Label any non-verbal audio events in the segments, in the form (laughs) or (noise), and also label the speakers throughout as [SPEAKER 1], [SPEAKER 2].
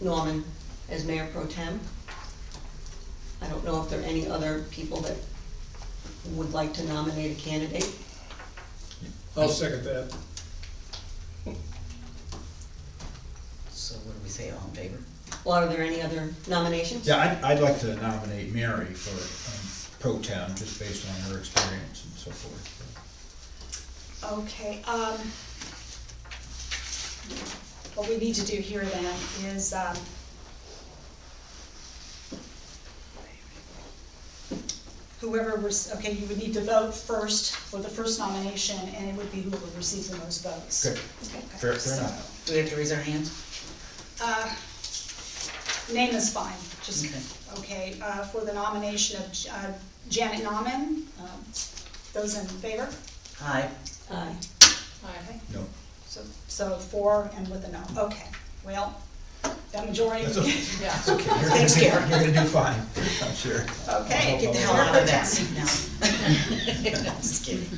[SPEAKER 1] Norman as mayor pro tem. I don't know if there are any other people that would like to nominate a candidate.
[SPEAKER 2] I'll second that.
[SPEAKER 3] So what do we say, all in favor?
[SPEAKER 1] Well, are there any other nominations?
[SPEAKER 4] Yeah, I'd, I'd like to nominate Mary for um, pro town, just based on her experience and so forth.
[SPEAKER 5] Okay, um, what we need to do here then is, um, whoever was, okay, you would need to vote first for the first nomination, and it would be whoever receives the most votes.
[SPEAKER 4] Good,
[SPEAKER 5] Okay,
[SPEAKER 4] fair, fair
[SPEAKER 5] so,
[SPEAKER 4] enough.
[SPEAKER 3] Do we have to raise our hands?
[SPEAKER 5] uh, Name is fine, just,
[SPEAKER 3] Okay.
[SPEAKER 5] okay, uh, for the nomination of J- uh, Janet Nauman, um, those in favor?
[SPEAKER 3] Aye.
[SPEAKER 1] Aye.
[SPEAKER 5] Okay.
[SPEAKER 4] No,
[SPEAKER 5] So, so four and with a no, okay, well, that majority.
[SPEAKER 4] that's okay,
[SPEAKER 5] (laughs)
[SPEAKER 6] Yeah.
[SPEAKER 4] it's okay, you're gonna,
[SPEAKER 3] Thanks,
[SPEAKER 4] do-
[SPEAKER 3] Karen.
[SPEAKER 4] you're gonna do fine, (laughs) I'm sure.
[SPEAKER 5] Okay,
[SPEAKER 3] Get the hell out of that
[SPEAKER 5] (laughs)
[SPEAKER 3] seat now. I'm Just kidding.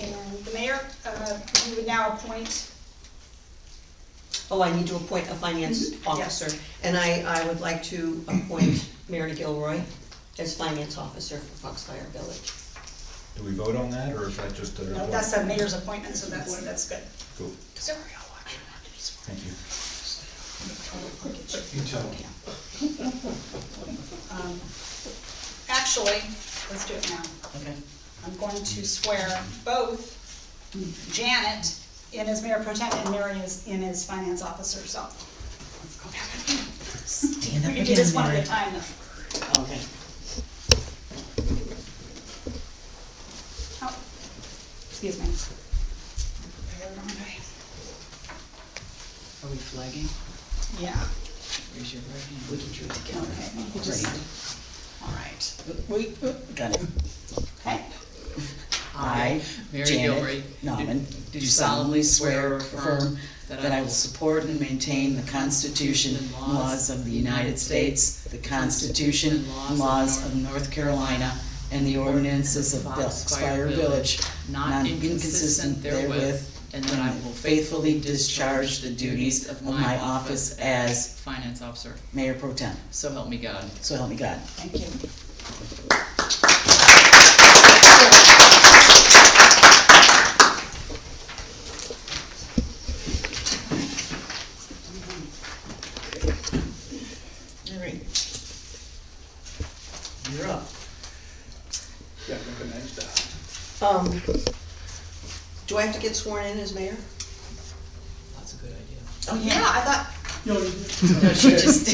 [SPEAKER 5] And the mayor, uh, you would now appoint,
[SPEAKER 1] Oh, I need to appoint a finance officer, and I, I would like to appoint Mary Gilroy as finance officer for Foxfire Village.
[SPEAKER 4] Do we vote on that, or is that just a?
[SPEAKER 5] no, that's the mayor's appointment, so that's, that's good.
[SPEAKER 4] Cool, thank you.
[SPEAKER 2] You tell them.
[SPEAKER 5] (laughs) Um, Actually, let's do it now.
[SPEAKER 3] Okay.
[SPEAKER 5] I'm going to swear both Janet in as mayor pro tem and Mary is in as finance officer, so.
[SPEAKER 3] Stand up
[SPEAKER 5] We can do this
[SPEAKER 3] again,
[SPEAKER 5] one at
[SPEAKER 3] Mary.
[SPEAKER 5] a time, though.
[SPEAKER 3] Okay.
[SPEAKER 5] Oh, excuse me.
[SPEAKER 3] Are we flagging?
[SPEAKER 5] Yeah,
[SPEAKER 3] Raise your right hand. We can do it together.
[SPEAKER 5] Okay, we can just-
[SPEAKER 3] All right. We, got it.
[SPEAKER 5] okay.
[SPEAKER 3] I,
[SPEAKER 6] Mary
[SPEAKER 3] Janet
[SPEAKER 6] Gilroy,
[SPEAKER 3] Nauman,
[SPEAKER 6] do- do
[SPEAKER 3] do solemnly swear or affirm
[SPEAKER 6] that
[SPEAKER 3] that
[SPEAKER 6] I
[SPEAKER 3] I will
[SPEAKER 6] will
[SPEAKER 3] support and maintain the Constitution and laws of the United States, the Constitution and laws of North Carolina, and the ordinances of Foxfire Village, not inconsistent therewith, and that I will faithfully discharge the duties of my office as
[SPEAKER 6] Finance officer,
[SPEAKER 3] Mayor Pro Tem.
[SPEAKER 6] so help me God.
[SPEAKER 3] So help me God.
[SPEAKER 5] Thank you.
[SPEAKER 3] All right. You're up.
[SPEAKER 1] Um, do I have to get sworn in as mayor?
[SPEAKER 6] That's a good idea.
[SPEAKER 3] Oh,
[SPEAKER 5] Yeah, I thought,
[SPEAKER 3] She just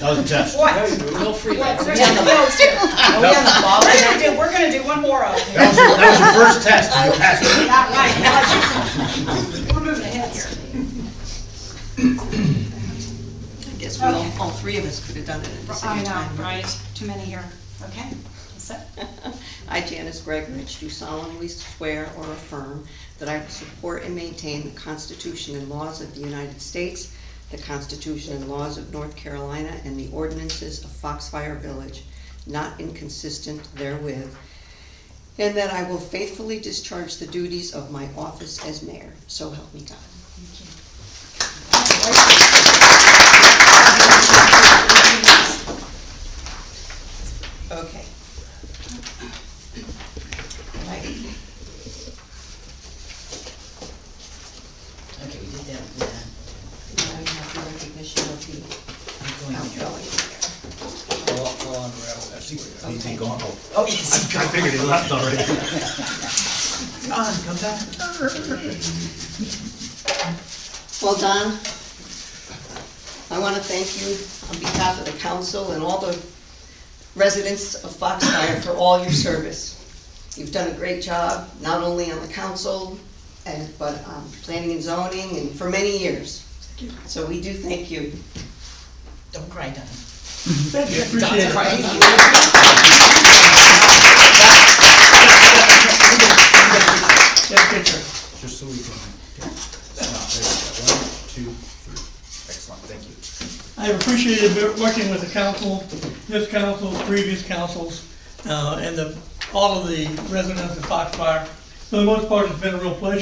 [SPEAKER 4] That was a test.
[SPEAKER 5] what?
[SPEAKER 6] Will
[SPEAKER 5] What,
[SPEAKER 6] Freeland.
[SPEAKER 5] there's no votes here. Are we
[SPEAKER 3] (laughs)
[SPEAKER 5] on the ball? We're gonna do, we're gonna do one more of them.
[SPEAKER 4] That was, your- that was your first test, and you passed it.
[SPEAKER 5] Not right, not you. We're moving ahead here.
[SPEAKER 1] I guess we all, all three of us could have done it at the
[SPEAKER 5] I
[SPEAKER 1] same time.
[SPEAKER 5] know, right, too many here. Okay, that's it.
[SPEAKER 1] I, Janice Gregorich, do solemnly swear or affirm that I will support and maintain the Constitution and laws of the United States, the Constitution and laws of North Carolina, and the ordinances of Foxfire Village, not inconsistent therewith, and that I will faithfully discharge the duties of my office as mayor, so help me God. Okay. Right.
[SPEAKER 3] Okay, we did that, we did that.
[SPEAKER 1] Now we have the recognition of the
[SPEAKER 3] I'm going here.
[SPEAKER 1] outgoing mayor.
[SPEAKER 2] I'll, I'll unravel that.
[SPEAKER 4] He's been gone. Oh,
[SPEAKER 3] Oh, yes.
[SPEAKER 4] I figured he left already.
[SPEAKER 3] Don, come back.
[SPEAKER 1] Well, Don, I want to thank you on behalf of the council and all the residents of Foxfire for all your service. You've done a great job, not only on the council, and, but on planning and zoning, and for many years. So we do thank you.
[SPEAKER 3] Don't cry, Don.
[SPEAKER 4] Appreciate it.
[SPEAKER 3] Cry.
[SPEAKER 4] Just so we can. One, two, three. Excellent, thank you.
[SPEAKER 7] I've appreciated wo- working with the council, this council, previous councils, uh, and the, all of the residents of Foxfire. For the most part, it's been a real pleasure.